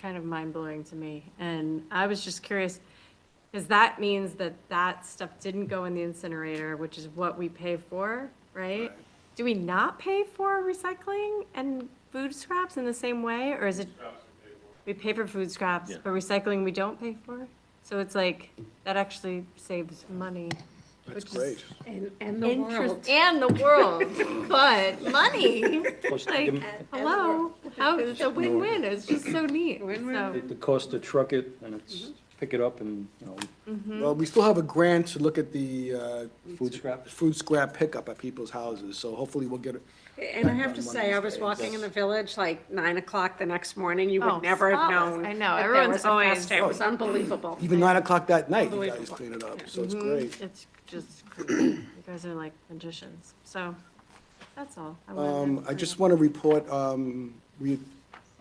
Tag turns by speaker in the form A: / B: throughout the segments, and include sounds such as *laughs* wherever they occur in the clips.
A: kind of mind-blowing to me. And I was just curious, because that means that that stuff didn't go in the incinerator, which is what we pay for, right? Do we not pay for recycling and food scraps in the same way, or is it? We pay for food scraps, but recycling we don't pay for? So it's like, that actually saves money. Which
B: That's
A: is-
B: great.
C: And, and the world.
A: And the world, but money,
D: Plus,
A: like, uh,
D: the-
A: hello, how, it's a win-win, it's just so neat, so.
D: The cost to truck it and it's, pick it up and, you know,
B: Well, we still have a grant to look at the uh,
D: food scraps.
B: food scrap pickup at people's houses, so hopefully we'll get it.
C: And I have to say, I was walking in the village like nine o'clock the next morning. You
A: Oh,
C: would never have
A: spotless.
C: known.
A: I know,
C: that there
A: everyone's
C: was a
A: always-
C: fest. It was unbelievable.
B: Even nine o'clock that night, you guys
C: Unbelievable.
B: clean it up, so it's great.
A: It's just, crazy. you guys are like magicians, so, that's all. wanted to
B: Um, I
A: bring
B: just
A: up.
B: want to report, um, we,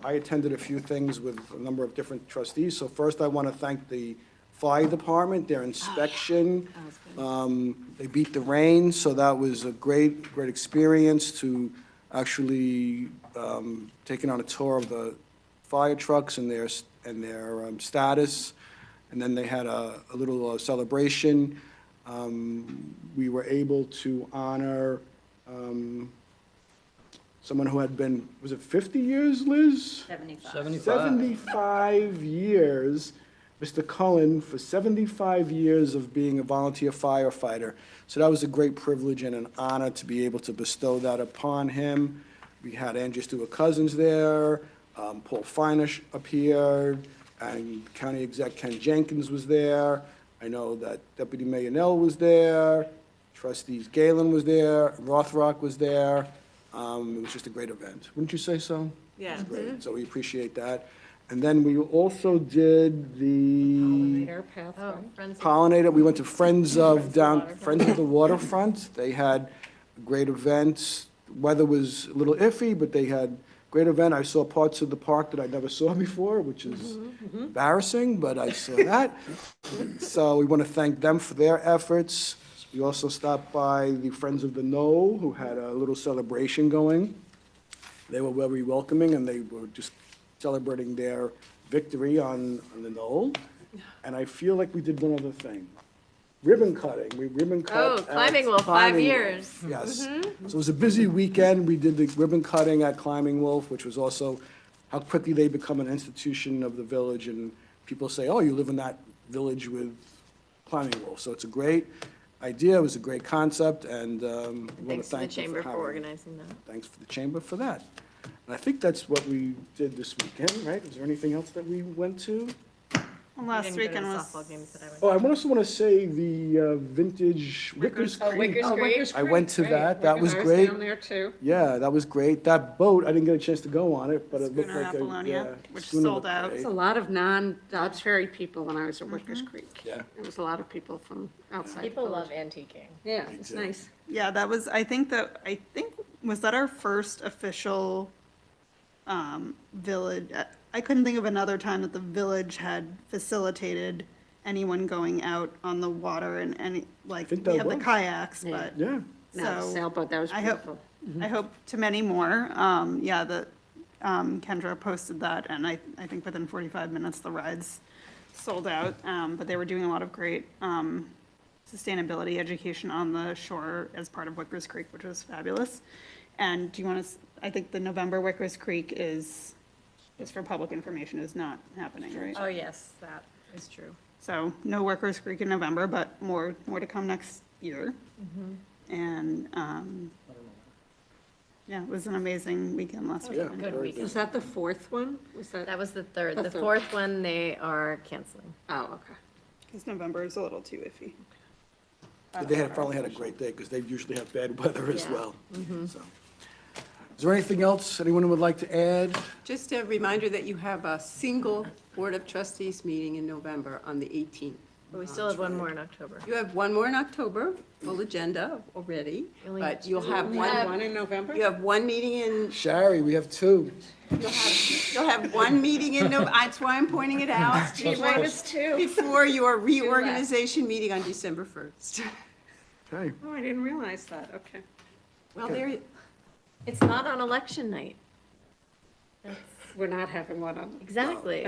B: I attended a few things with a number of different trustees. So first, I want to thank the fire department, their inspection.
A: Oh, That was good.
B: Um, They beat the rain, so that was a great, great experience to actually um, taking on a tour of the fire trucks and their, and their um, status. And then they had a a little uh, celebration. Um, We were able to honor um, someone who had been, was it 50 years, Liz?
D: Seventy-five.
B: 75 years, Mr. Cullen, for 75 years of being a volunteer firefighter. So that was a great privilege and an honor to be able to bestow that upon him. We had Andrew Stewart Cousins there, um, Paul Finish appeared, and County Exec Ken Jenkins was there. I know that Deputy Mayor Nell was there, trustees Galen was there, Rothrock was there. Um, It was just a great event. Wouldn't you say so?
A: Yeah.
B: Great, so we appreciate that. And then we also did the
C: Air pathway.
A: Oh, friends,
B: pollinator, we went to Friends of Down, Friends of the Waterfront. They had great events. Weather was a little iffy, but they had great event. I saw parts of the park that I never saw before, which is embarrassing, but I saw that. So we want to thank them for their efforts. We also stopped by the Friends of the Knoll, who had a little celebration going. They were very welcoming, and they were just celebrating their victory on, on the Knoll. And I feel like we did one other thing. Ribbon cutting, we ribbon cut.
A: Oh, Climbing
B: at
A: Wolf, five
B: Climbing
A: years. Mm-hmm.
B: Wolf, Yes. So it was a busy weekend. We did the ribbon cutting at Climbing Wolf, which was also how quickly they become an institution of the village, and people say, oh, you live in that village with Climbing Wolf. So it's a great idea, it was a great concept, and um, we want to
A: Thanks to the
B: thank them
A: chamber
B: for
A: for
B: having us
A: organizing that.
B: thanks for the chamber for that. And I think that's what we did this weekend, right? Is there anything else that we went to?
E: Last
A: We didn't
E: weekend
A: go to the
E: was,
A: Softball games that I went to.
B: Oh, I also want to say the uh, vintage Wickers Creek.
C: Oh, Wicker's
B: I went to
C: Creek,
B: that. That was
C: Wicker's
B: great.
C: Down there too.
B: Yeah, that was great. That boat, I didn't get a chance to go on it, but it looked
E: Schooner
B: like a, yeah.
E: Apollonia, which
B: schooner
E: sold
B: looked
E: out.
B: great.
C: It's a lot of non-Dobbs Ferry people when I was at Wickers Creek.
B: Yeah.
C: It was a lot of people from outside. the
F: People love
C: village.
F: antiquing.
C: Yeah, it's nice.
E: yeah, that was, I think that, I think, was that our first official um, village? I- I couldn't think of another time that the village had facilitated anyone going out on the water and any, like,
B: think
E: we
B: that
E: have the
B: was.
E: kayaks,
C: Yeah.
E: but.
B: Yeah,
C: No,
E: so-
C: sailboat, that was
E: I hope,
C: beautiful.
E: I hope to many more. Um, yeah, the, um, Kendra posted that and I, I think within 45 minutes, the rides sold out. Um, but they were doing a lot of great, um, sustainability education on the shore as part of Wickers Creek, which was fabulous. And do you want to, I think the November Wickers Creek is, just for public information, is not happening, right?
A: Oh, yes, that is true.
E: So no Workers Creek in November, but more, more to come next year. And, um, yeah, it was an amazing weekend last
B: Oh, yeah.
E: weekend.
B: very
C: Was that the fourth one? Was that?
F: That was the
B: *laughs*
F: third. The
C: That's a-
F: fourth one, they are canceling.
C: Oh, okay.
E: Because November is a little too iffy.
B: But They had, finally had a great day, because they usually have bad weather as
F: Yeah.
B: well.
E: Mm-hmm.
B: So, Is there anything else anyone would like to add?
G: Just a reminder that you have a single Board of Trustees meeting in November on the 18th.
F: But we
B: Oh,
F: still have one more in October.
G: You have one more in October, full agenda already,
F: Really?
G: but you'll have
C: We had
G: one,
C: one in November?
G: you have one meeting in,
B: Shari, we have two.
G: you'll have, you'll have one meeting in, Nov- that's why I'm pointing it out. Before your reorganization meeting on December 1st.
B: Okay.
C: Oh, I didn't realize that, okay.
G: Well, there,
F: It's not on election night. That's
H: we're not having one on
C: Exactly.